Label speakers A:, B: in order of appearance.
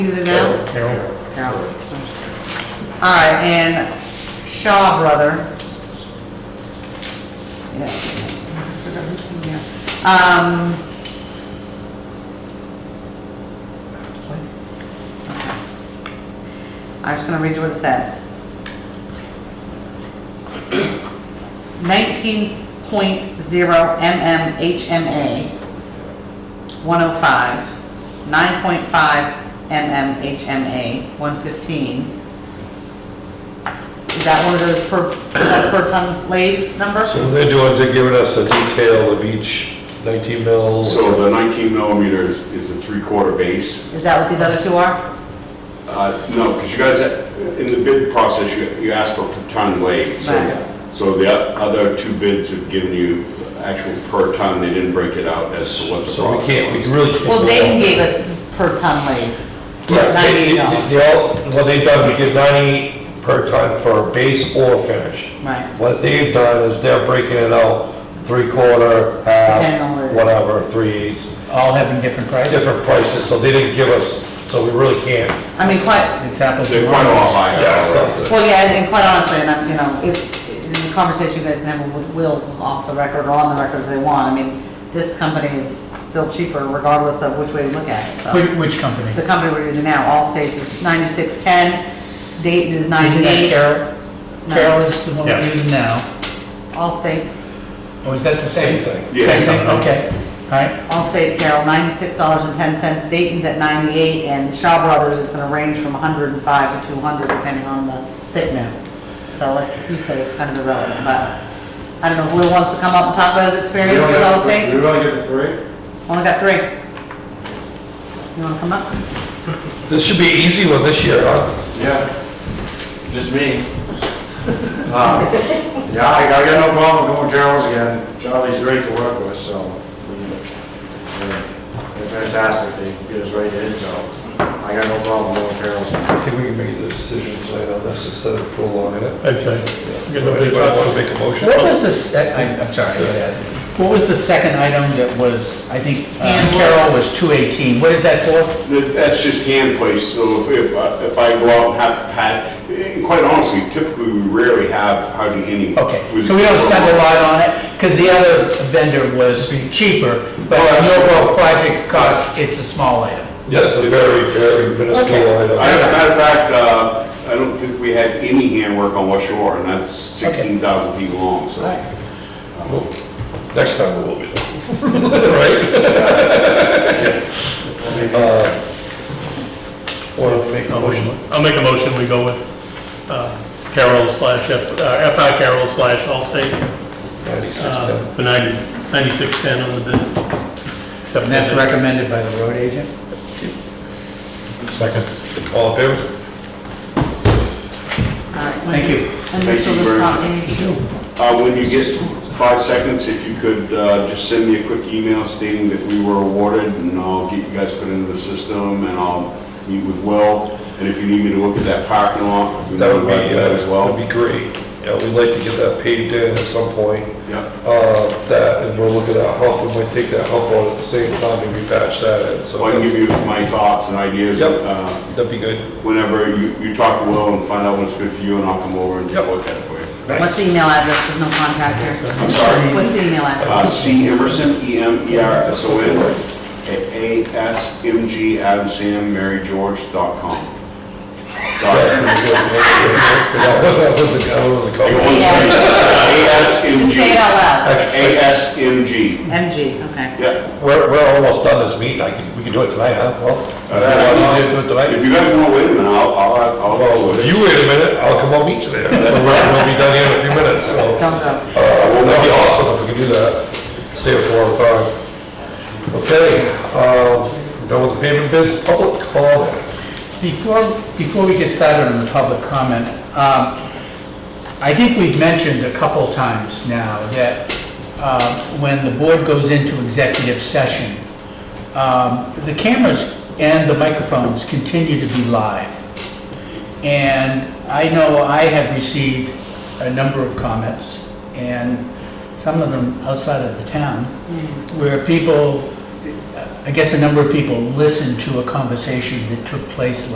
A: Using now?
B: Carol,
A: Carol. All right, and Shaw Brother. Yeah. Forgot who's in there. Um. what's- okay. I'm just gonna read you what it says. Nineteen point zero MM HMA. 105, 9.5 MMHMA, 115. Is that one of those per, is that per ton laid number?
C: So what they're doing is they're giving us a detail of each 19 mils.
D: So the 19 millimeters is a three-quarter base.
A: Is that what these other two are?
D: Uh, No, because you guys, in the bid process, you you asked for per ton weight. So-
A: Right.
D: So the o- other two bids have given you actual per ton, they didn't break it out as to what the.
C: So we
D: product
C: can't, we
D: was.
C: really can't.
A: Well, they gave us per ton laid.
C: Yeah, they- they-
A: $98.
C: They all, what they've done, we get 90 per ton for base or finish.
A: Right.
C: What they've done is they're breaking it out, three quarter,
A: Depending on what it
C: half,
A: is.
C: whatever, three eighths,
B: all having different prices.
C: different prices, so they didn't give us, so we really can't.
A: I mean, quite,
B: It's apples and
D: They're quite a lot
B: oranges.
D: higher.
C: it's not good.
A: well, yeah, and quite honestly, and I'm, you know, if, in the conversation you guys can have with Will off the record or on the record if they want, I mean, this company is still cheaper regardless of which way you look at it, so.
B: Which, which company?
A: the company we're using now, all states is ninety-six ten, Dayton is
B: Isn't that
A: ninety-eight,
B: Carol?
A: No.
B: Carol is the one we're
E: Yeah.
B: using now.
A: Allstate,
B: Or is that the
C: Same
B: same?
C: thing.
D: Yeah.
B: Same thing, okay. All right,
A: Allstate Carroll, ninety-six dollars and ten cents, Dayton's at ninety-eight, and Shaw Brothers is gonna range from hundred and five to two hundred, depending on the thickness. So like you said, it's kind of irrelevant, but I don't know, who wants to come up and talk about his
F: We
A: experience
F: only
A: with
F: got- We
A: Allstate?
F: only get the three?
A: Only got three. You wanna come up?
C: This should be an easy one this year, huh?
F: Yeah. Just me. Uh, Yeah, I I got no problem going Carol's again. Charlie's great to work with, so we- they're they're fantastic. They get us right in, so I got no problem going Carol's.
C: I think we can make the decision tonight on this instead of prolonging it.
E: I'd say.
C: So anybody want to make a motion?
B: what was the, se- I- I'm sorry, I gotta ask. What was the second item that was, I think, um,
A: Hand
B: Carol
A: roll.
B: was two eighteen, what is that for?
D: That- That's just hand placed, so if, if I- if I go out and have to pat, and quite honestly, typically, we rarely have hardly any.
B: Okay, so we don't spend a lot on it, because the other vendor was cheaper, but on the overall project cost, it's a small item.
C: Yeah, it's a very, very minuscule item.
D: I- As a matter of fact, uh, I don't think we had any handwork on West Shore, and that's 16,000 feet long, so.
C: Next time we will be there. Right? Want to make a motion?
E: I'll make a motion, we go with uh, Carroll slash, F- uh, FI Carroll slash Allstate uh,
C: 9610.
E: for 90 9610 on the bid. Accept
B: And that's
E: that.
B: recommended by the road agent?
E: Uh,
C: All in favor?
A: All right,
B: Thank you.
A: Initial
D: Thank you
A: this
D: very
A: top
D: much.
A: initial.
D: Uh, When you get five seconds, if you could uh, just send me a quick email stating that we were awarded, and I'll get you guys put into the system, and I'll meet with Will, and if you need me to look at that parking lot, we
C: That would be,
D: might do that as
C: uh,
D: well.
C: that'd be great. Yeah, we'd like to get that paved in at some point.
D: Yeah.
C: Uh, That, and we'll look at that hump, we might take that hump out at the same time and repatch that in. So
D: So I can give
C: that's-
D: you my thoughts and ideas
C: Yep.
D: uh,
C: that'd be good.
D: whenever you you talk to Will and find out what's good for you, and I'll come over and take a
C: Yep.
D: look at it for you.
A: What's the email address? There's no contact here.
D: I'm sorry.
A: What's the email address?
D: Uh, C. Emerson, E. M. E. R. S. O. N. at A. S. M. G. Adam Sam Mary George dot com. Sorry.
C: That was a- that was a
D: I got
C: couple.
D: one straight. A. S. M.
A: Just
D: G.
A: say it out loud.
D: A. S. M. G.
A: MG, okay.
D: Yep.
C: We're, we're almost done this meeting, I can, we can do it tonight, huh? Well,
D: Uh,
C: you want to do it tonight?
D: If you guys want to wait a minute, I'll, I'll, I'll go
C: Well,
D: with
C: if
D: it.
C: you wait a minute, I'll come up meet you there. We'll be done here in a few minutes, so.
A: Don't go.
C: Uh, That'd be awesome if we could do that. Save us a lot of time. Okay, um, done with the payment bid, public comment.
B: Before, before we get started on the public comment, um, I think we've mentioned a couple times now that um, when the board goes into executive session, um, the cameras and the microphones continue to be live. And I know I have received a number of comments, and some of them outside of the town, where people I guess a number of people listened to a conversation that took place